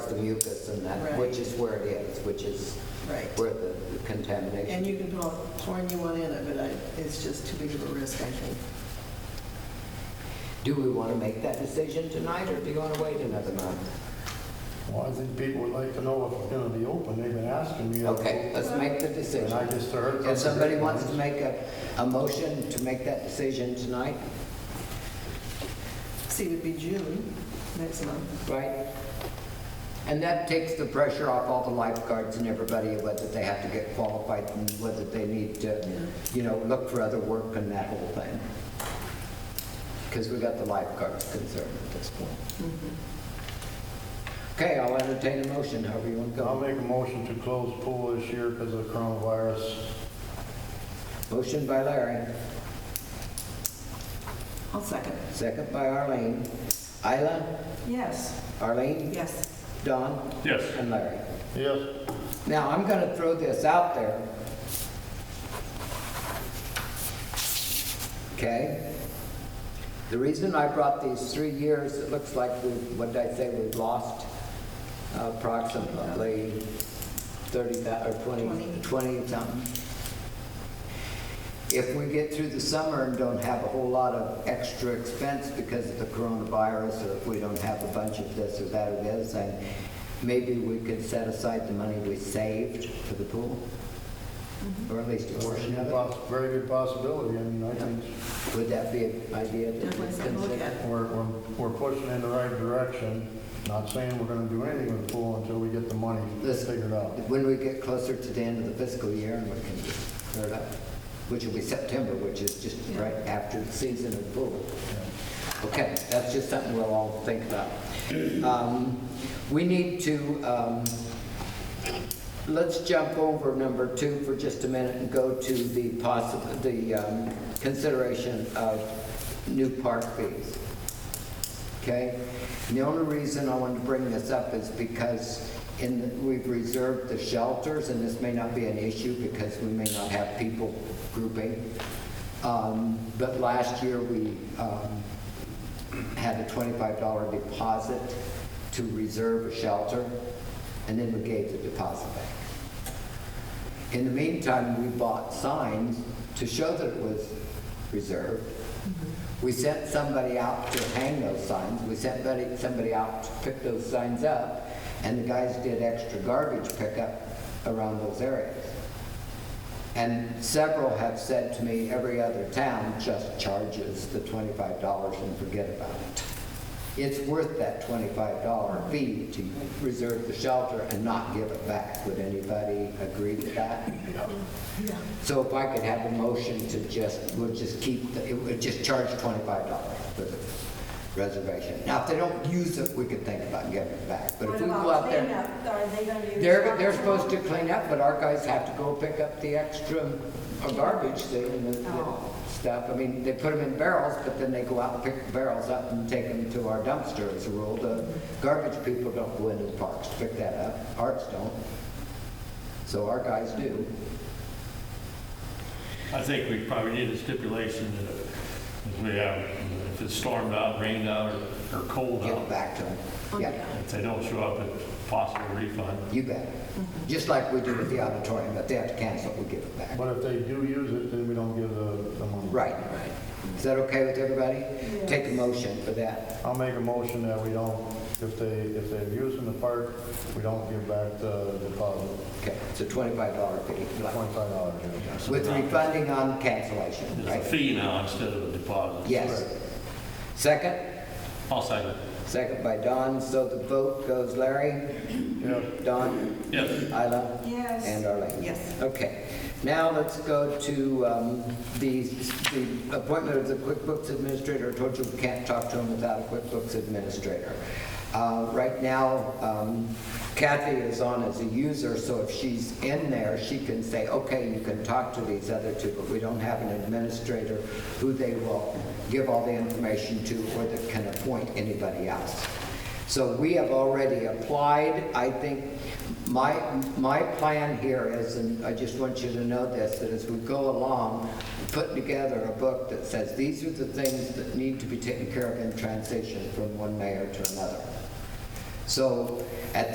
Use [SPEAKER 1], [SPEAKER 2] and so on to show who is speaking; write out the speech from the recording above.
[SPEAKER 1] the mucus and that,
[SPEAKER 2] Right.
[SPEAKER 1] which is where it is, which is
[SPEAKER 2] Right.
[SPEAKER 1] where the contamination.
[SPEAKER 2] And you can pour pour a new one in it, but I- it's just too big of a risk, I think.
[SPEAKER 1] Do we want to make that decision tonight, or do you want to wait another month?
[SPEAKER 3] Well, I think people would like to know if it's gonna be open, they've been asking me.
[SPEAKER 1] Okay, let's make the
[SPEAKER 3] And I
[SPEAKER 1] decision.
[SPEAKER 3] just heard.
[SPEAKER 1] If somebody wants to make a, a motion to make that decision tonight,
[SPEAKER 2] See, it would be June next month.
[SPEAKER 1] right? And that takes the pressure off all the lifeguards and everybody, whether they have to get qualified and whether they need to, you know, look for other work and that whole thing. Because we got the lifeguards concerned at this point. Okay, I'll entertain a motion, however you want to
[SPEAKER 3] Mm-hmm. I'll
[SPEAKER 1] go.
[SPEAKER 3] make a motion to close pool this year because of coronavirus.
[SPEAKER 1] Motion by Larry,
[SPEAKER 2] I'll second.
[SPEAKER 1] second by Arlene. Isla,
[SPEAKER 2] Yes,
[SPEAKER 1] Arlene,
[SPEAKER 2] yes.
[SPEAKER 1] Don,
[SPEAKER 4] Yes.
[SPEAKER 1] and Larry.
[SPEAKER 3] Yes,
[SPEAKER 1] Now, I'm going to throw this out there. Okay? The reason I brought these three years, it looks like we, what did I say, we've lost approximately 30, thou- or 20,
[SPEAKER 2] Twenty.
[SPEAKER 1] 20 something. If we get through the summer and don't have a whole lot of extra expense because of the coronavirus, or if we don't have a bunch of this or that or the other thing, maybe we could set aside the money we saved for the pool?
[SPEAKER 2] Mm-hmm.
[SPEAKER 1] Or at least a portion of it?
[SPEAKER 3] Poss- very good possibility, I mean, I think
[SPEAKER 1] Would that be an idea to
[SPEAKER 2] Definitely something to look
[SPEAKER 1] consider?
[SPEAKER 2] at.
[SPEAKER 3] we're, we're, we're pushing in the right direction. Not saying we're gonna do anything with the pool until we get the money
[SPEAKER 1] Listen.
[SPEAKER 3] figured out.
[SPEAKER 1] When we get closer to the end of the fiscal year and we can clear it up, which will be September, which is just
[SPEAKER 2] Yeah.
[SPEAKER 1] right after the season of pool.
[SPEAKER 3] Yeah.
[SPEAKER 1] Okay, that's just something we'll all think about. Um, We need to, um, let's jump over number two for just a minute and go to the possible, the um, consideration of new park fees. Okay? And the only reason I wanted to bring this up is because in, we've reserved the shelters, and this may not be an issue because we may not have people grouping. Um, But last year, we um, had a $25 deposit to reserve a shelter, and then we gave the deposit back. In the meantime, we bought signs to show that it was reserved. We sent somebody out to hang those signs, we sent buddy- somebody out to pick those signs up, and the guys did extra garbage pickup around those areas. And several have said to me, every other town just charges the $25 and forget about it. It's worth that $25 fee to reserve the shelter and not give it back. Would anybody agree with that?
[SPEAKER 2] Yeah.
[SPEAKER 1] So if I could have a motion to just, we'll just keep, the- it would just charge $25 for the reservation. Now, if they don't use it, we could think about giving it back, but if
[SPEAKER 5] What
[SPEAKER 1] we go
[SPEAKER 5] about
[SPEAKER 1] out there.
[SPEAKER 5] cleanup? Are they gonna be?
[SPEAKER 1] They're, they're
[SPEAKER 5] responsible?
[SPEAKER 1] supposed to clean up, but our guys have to go pick up the extra uh, garbage thing and the the
[SPEAKER 5] Oh.
[SPEAKER 1] stuff. I mean, they put them in barrels, but then they go out and pick the barrels up and take them to our dumpster as a rule. The garbage people don't go into the parks to pick that up, parks don't. So our guys do.
[SPEAKER 4] I think we probably need a stipulation that if we have, if it's stormed out, rained out, or- or cold
[SPEAKER 1] Give it
[SPEAKER 4] out,
[SPEAKER 1] back to them. Oh, Yeah,
[SPEAKER 4] if they don't show up, it's possible refund.
[SPEAKER 1] you bet. Just like we do with the auditorium, if they have to cancel, we give it back.
[SPEAKER 3] But if they do use it, then we don't give the, the money.
[SPEAKER 1] Right. Is that okay with everybody? Take a motion for that.
[SPEAKER 3] I'll make a motion that we don't, if they, if they're using the park, we don't give back the deposit,
[SPEAKER 1] Okay, it's a twenty-five dollar fee,
[SPEAKER 3] twenty-five dollars.
[SPEAKER 4] So
[SPEAKER 1] with
[SPEAKER 4] now
[SPEAKER 1] refunding on cancellation,
[SPEAKER 4] It's a
[SPEAKER 1] right?
[SPEAKER 4] fee now instead of a deposit.
[SPEAKER 1] Yes. Second,
[SPEAKER 4] I'll second.
[SPEAKER 1] second by Don, so the vote goes Larry,
[SPEAKER 3] Yes.
[SPEAKER 1] Don,
[SPEAKER 4] Yes.
[SPEAKER 1] Isla,
[SPEAKER 2] Yes.
[SPEAKER 1] and uh, Arlene.
[SPEAKER 2] Yes.
[SPEAKER 1] Okay, now let's go to um, the, the appointment of the QuickBooks administrator. I told you we can't talk to him without a QuickBooks administrator. Uh, Right now, um, Kathy is on as a user, so if she's in there, she can say, okay, you can talk to these other two, but we don't have an administrator who they will give all the information to or that can appoint anybody else. So we have already applied. I think my, my plan here is, and I just want you to know this, that as we go along, put together a book that says, these are the things that need to be taken care of in transition from one mayor to another. So at